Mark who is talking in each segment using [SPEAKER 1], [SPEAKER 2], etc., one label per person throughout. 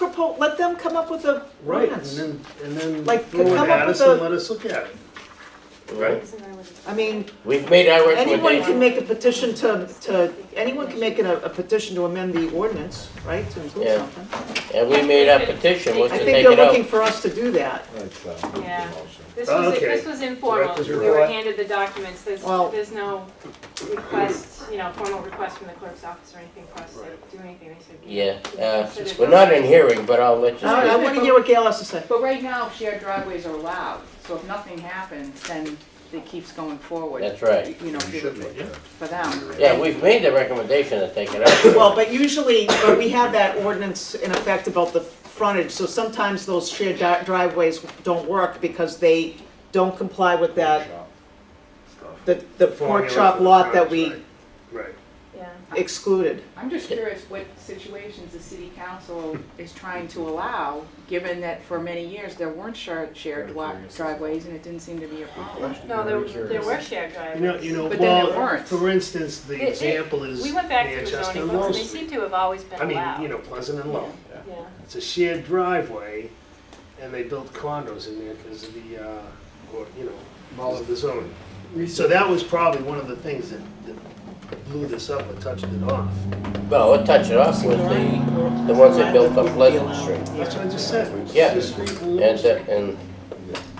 [SPEAKER 1] propose, let them come up with a
[SPEAKER 2] Right, and
[SPEAKER 1] ordinance.
[SPEAKER 2] then, and then
[SPEAKER 1] Like,
[SPEAKER 2] throw it
[SPEAKER 1] come up
[SPEAKER 2] at
[SPEAKER 1] with
[SPEAKER 2] us and
[SPEAKER 1] a-
[SPEAKER 2] let us look at it. Right?
[SPEAKER 1] I mean,
[SPEAKER 3] We've made our
[SPEAKER 1] anyone
[SPEAKER 3] recommendation.
[SPEAKER 1] can make a petition to, to, anyone can make an- a petition to amend the ordinance, right, to include
[SPEAKER 3] Yeah.
[SPEAKER 1] something.
[SPEAKER 3] And we made our petition, was
[SPEAKER 1] I
[SPEAKER 3] to
[SPEAKER 1] think
[SPEAKER 3] take
[SPEAKER 1] they're
[SPEAKER 3] it out.
[SPEAKER 1] looking for us to do that.
[SPEAKER 4] Yeah. This
[SPEAKER 2] Oh,
[SPEAKER 4] was,
[SPEAKER 2] okay.
[SPEAKER 4] this was informal,
[SPEAKER 2] was
[SPEAKER 4] we
[SPEAKER 2] your
[SPEAKER 4] were
[SPEAKER 2] thought.
[SPEAKER 4] handed the documents, there's,
[SPEAKER 1] Well-
[SPEAKER 4] there's no request, you know, formal request from the clerk's office or anything for us to do anything, they said.
[SPEAKER 3] Yeah, uh, we're not in hearing, but I'll let you
[SPEAKER 1] All right, I
[SPEAKER 3] speak.
[SPEAKER 1] wanna hear what Gail has to say.
[SPEAKER 5] But right now, shared driveways are allowed, so if nothing happens, then it keeps going forward.
[SPEAKER 3] That's right.
[SPEAKER 5] You know, for for them.
[SPEAKER 3] Yeah, we've made the recommendation to take it out.
[SPEAKER 1] Well, but usually, but we have that ordinance in effect about the frontage, so sometimes those shared di- driveways don't work because they don't comply with that, the, the pork
[SPEAKER 2] Formula
[SPEAKER 1] chop
[SPEAKER 2] for the
[SPEAKER 1] lot that we
[SPEAKER 2] frontage, Right,
[SPEAKER 4] Yeah.
[SPEAKER 1] excluded.
[SPEAKER 5] I'm just curious what situations the city council is trying to allow, given that for many years, there weren't shared, shared dri- driveways, and it didn't seem to be a problem.
[SPEAKER 4] No, there, there were shared
[SPEAKER 2] right.
[SPEAKER 4] driveways.
[SPEAKER 2] You know, you know,
[SPEAKER 5] But then it
[SPEAKER 2] well,
[SPEAKER 5] warrants.
[SPEAKER 2] for instance,
[SPEAKER 4] It-
[SPEAKER 2] the
[SPEAKER 4] it-
[SPEAKER 2] example is
[SPEAKER 4] We went back to the
[SPEAKER 2] Manchester
[SPEAKER 4] zoning
[SPEAKER 2] and
[SPEAKER 4] books,
[SPEAKER 2] Low
[SPEAKER 4] and they seem
[SPEAKER 2] Street.
[SPEAKER 4] to have always been
[SPEAKER 2] I mean, you
[SPEAKER 4] allowed.
[SPEAKER 2] know, Pleasant and Low.
[SPEAKER 4] Yeah.
[SPEAKER 2] It's a shared driveway, and they built condos in there because of the, uh, or, you know, because of the zoning. So that was probably one of the things that, that blew this up and touched it off.
[SPEAKER 3] No, what touched it off was the, the ones that built on Pleasant Street.
[SPEAKER 2] That's what I just said.
[SPEAKER 3] Yeah.
[SPEAKER 2] Just read the
[SPEAKER 3] And, uh,
[SPEAKER 2] rules.
[SPEAKER 3] and,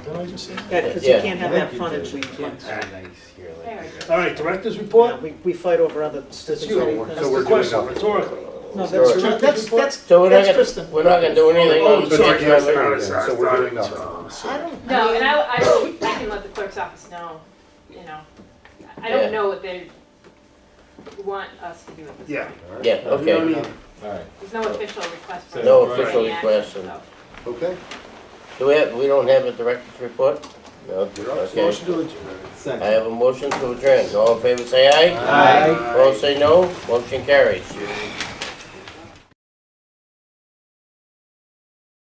[SPEAKER 2] Didn't I just say that?
[SPEAKER 1] Yeah, because you
[SPEAKER 3] Yeah.
[SPEAKER 1] can't have that frontage. we can't.
[SPEAKER 4] Very good.
[SPEAKER 2] All right, director's
[SPEAKER 1] Yeah,
[SPEAKER 2] report?
[SPEAKER 1] we, we fight over other
[SPEAKER 2] That's
[SPEAKER 1] stupid
[SPEAKER 2] you.
[SPEAKER 1] things.
[SPEAKER 2] That's the question rhetorically.
[SPEAKER 1] No,
[SPEAKER 3] Sorry.
[SPEAKER 1] that's, that's, that's, that's
[SPEAKER 3] so we're not
[SPEAKER 1] Kristen.
[SPEAKER 3] gonna, we're not gonna do anything
[SPEAKER 2] Oh,
[SPEAKER 3] on the
[SPEAKER 2] sorry, yes,
[SPEAKER 3] driveway.
[SPEAKER 2] I was- I
[SPEAKER 6] So we're doing
[SPEAKER 2] thought-
[SPEAKER 6] nothing.
[SPEAKER 1] I don't,
[SPEAKER 4] No,
[SPEAKER 1] I
[SPEAKER 4] and
[SPEAKER 1] mean,
[SPEAKER 4] I, I, will- I can let the clerk's office know, you know, I
[SPEAKER 3] Yeah.
[SPEAKER 4] don't know what they want us to do at this
[SPEAKER 2] Yeah.
[SPEAKER 4] point.
[SPEAKER 3] Yeah,
[SPEAKER 2] We don't
[SPEAKER 3] okay.
[SPEAKER 2] need-
[SPEAKER 6] Alright,
[SPEAKER 4] There's no official request. for
[SPEAKER 3] No
[SPEAKER 4] any
[SPEAKER 3] official
[SPEAKER 4] action,
[SPEAKER 3] request, and-
[SPEAKER 4] so.
[SPEAKER 6] okay.
[SPEAKER 3] Do we have, we don't have a director's report? No,
[SPEAKER 6] You're up.
[SPEAKER 3] okay.
[SPEAKER 2] Motion to adjourn.
[SPEAKER 3] I have a motion to adjourn. All in favor, say aye.
[SPEAKER 6] Aye.
[SPEAKER 3] Opposed, say no. Motion carries.
[SPEAKER 2] Aye.